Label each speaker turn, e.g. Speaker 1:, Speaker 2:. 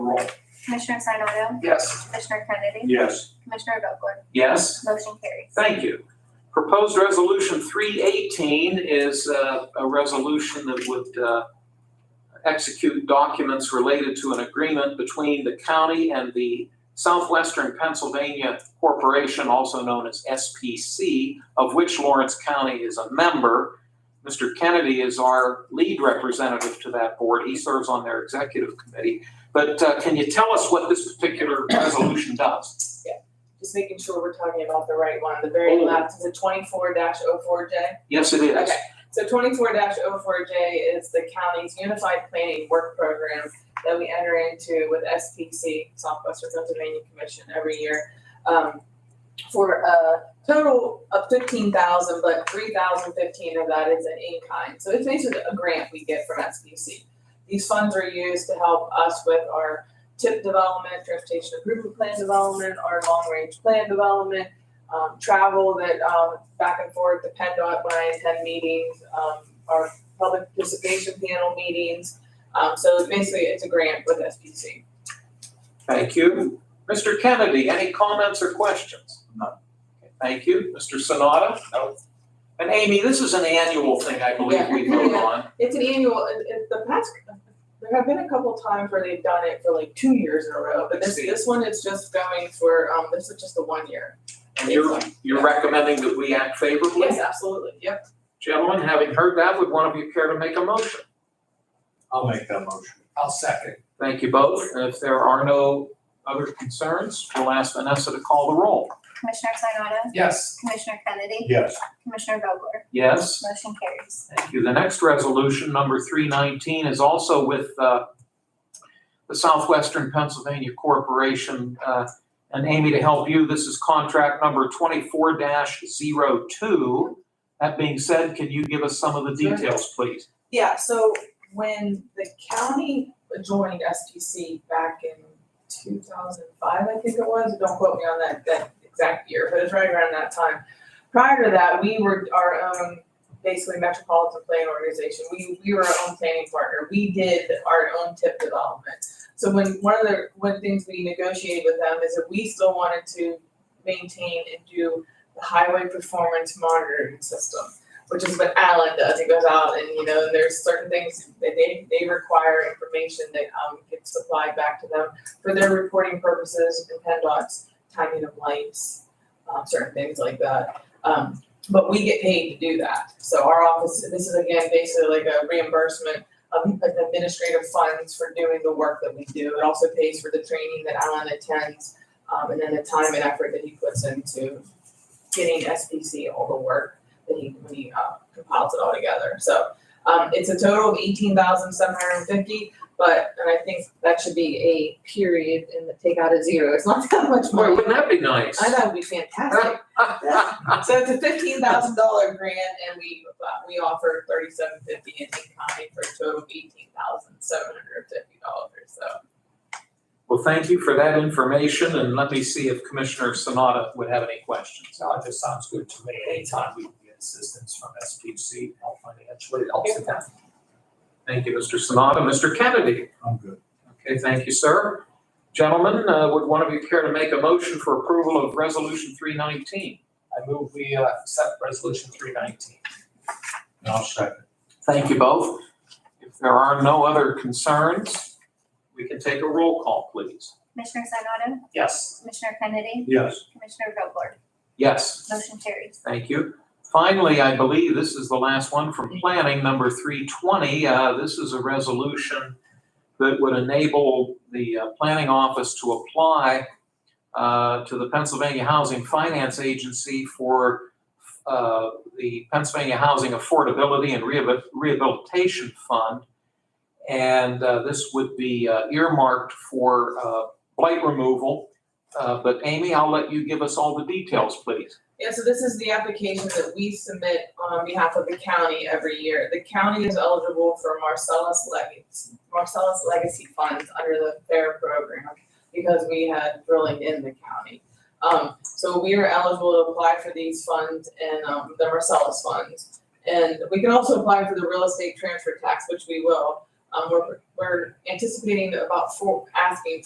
Speaker 1: roll.
Speaker 2: Commissioner Sinata,
Speaker 1: Yes.
Speaker 2: Commissioner Kennedy,
Speaker 3: Yes.
Speaker 2: Commissioner Vogler,
Speaker 1: Yes.
Speaker 2: motion carries.
Speaker 1: Thank you. Proposed Resolution 318 is uh, a resolution that would uh, execute documents related to an agreement between the county and the Southwestern Pennsylvania Corporation, also known as SPC, of which Lawrence County is a member. Mr. Kennedy is our lead representative to that board. He serves on their executive committee. But uh, can you tell us what this particular resolution does?
Speaker 4: just making sure we're talking about the right one, the very
Speaker 1: Oh.
Speaker 4: left is a twenty-four 4 J.
Speaker 1: Yes, it is.
Speaker 4: Okay. So twenty-four 4 J is the county's unified planning work program that we enter into with SPC, Southwestern Pennsylvania Commission, every year. um, for a total of fifteen thousand, but three thousand fifteen of that is an in-kind. So it's basically a grant we get from SPC. These funds are used to help us with our TIP development, transportation improvement plan development, our long-range plan development, um, travel that, um, back and forth, the PennDOT when I attend meetings, um, our public participation panel meetings. Um, so it's basically, it's a grant with SPC.
Speaker 1: Thank you. Mr. Kennedy, any comments or questions? None. Thank you. Mr. Sonata? No. And Amy, this is an annual thing I believe we
Speaker 4: Yeah.
Speaker 1: vote on.
Speaker 4: It's an annual, it, it, the past, there have been a couple times where they've done it for like two years in a row, but this,
Speaker 1: See.
Speaker 4: this one is just going for, um, this is just a one year.
Speaker 1: And you're, you're recommending that we act favorably?
Speaker 4: Yes, absolutely, yep.
Speaker 1: Gentlemen, having heard that, would one of you care to make a motion?
Speaker 3: I'll make that motion.
Speaker 5: I'll second.
Speaker 1: Thank you both. And If there are no other concerns, we'll ask Vanessa to call the roll.
Speaker 2: Commissioner Sinata,
Speaker 5: Yes.
Speaker 2: Commissioner Kennedy,
Speaker 3: Yes.
Speaker 2: Commissioner Vogler,
Speaker 1: Yes?
Speaker 2: motion carries.
Speaker 1: Thank you. The next resolution, number 319, is also with uh, the Southwestern Pennsylvania Corporation. Uh, And Amy, to help you, this is contract number 24-02. That being said, can you give us some of the
Speaker 4: Sure.
Speaker 1: details, please?
Speaker 4: Yeah, so when the county joined SPC back in two thousand five, I think it was, don't quote me on that, that exact year, but it's right around that time. Prior to that, we were our own, basically metropolitan planning organization, we, we were our own planning partner, we did our own tip development. So when, one of the, one of the things we negotiated with them is that we still wanted to maintain and do the highway performance monitoring system which is what Alan does. He goes out and you know, there's certain things that they they require information that um gets supplied back to them for their reporting purposes and PennDOT's timing of lights, um, certain things like that. Um, but we get paid to do that. So our office, this is again basically like a reimbursement of administrative funds for doing the work that we do. It also pays for the training that Alan attends, um, and then the time and effort that he puts into getting SPC all the work that he, when he uh, compiles it all together. So um, it's a total of eighteen thousand seven hundred and fifty, but, and I think that should be a period and take out a zero. It's not that much
Speaker 1: Boy,
Speaker 4: money.
Speaker 1: wouldn't that be nice?
Speaker 4: I know, it'd be fantastic. So it's a fifteen thousand dollar grant and we, uh, we offer thirty-seven fifty in in-kind for a total of eighteen thousand seven hundred and fifty dollars, so.
Speaker 1: Well, thank you for that information, and let me see if Commissioner Sanada would have any questions.
Speaker 5: No, it just sounds good to me. Anytime we can get assistance from SPC, help financially, it helps the town.
Speaker 1: Thank you, Mr. Sanada. Mr. Kennedy?
Speaker 3: I'm good.
Speaker 1: Okay, thank you, sir. Gentlemen, uh, would one of you care to make a motion for approval of Resolution 319?
Speaker 5: I move we uh, accept resolution three nineteen.
Speaker 3: And I'll second.
Speaker 1: Thank you both. If there are no other concerns, we can take a roll call, please.
Speaker 2: Commissioner Sinata,
Speaker 5: Yes.
Speaker 2: Commissioner Kennedy,
Speaker 3: Yes.
Speaker 2: Commissioner Vogler,
Speaker 1: Yes,
Speaker 2: motion carries.
Speaker 1: thank you. Finally, I believe this is the last one from planning, number 320. Uh, This is a resolution that would enable the uh, planning office to apply uh, to the Pennsylvania Housing Finance Agency for uh, the Pennsylvania Housing Affordability and Rehabi- Rehabilitation Fund. And uh, this would be uh, earmarked for uh, blight removal. Uh, But Amy, I'll let you give us all the details, please.
Speaker 4: Yeah, so this is the application that we submit on behalf of the county every year. The county is eligible for Marcellus Legacy, Marcellus Legacy Funds under the FAIR program because we had drilling in the county. Um, so we are eligible to apply for these funds and, um, the Marcellus funds. And we can also apply for the real estate transfer tax, which we will. Um, we're, we're anticipating about four, asking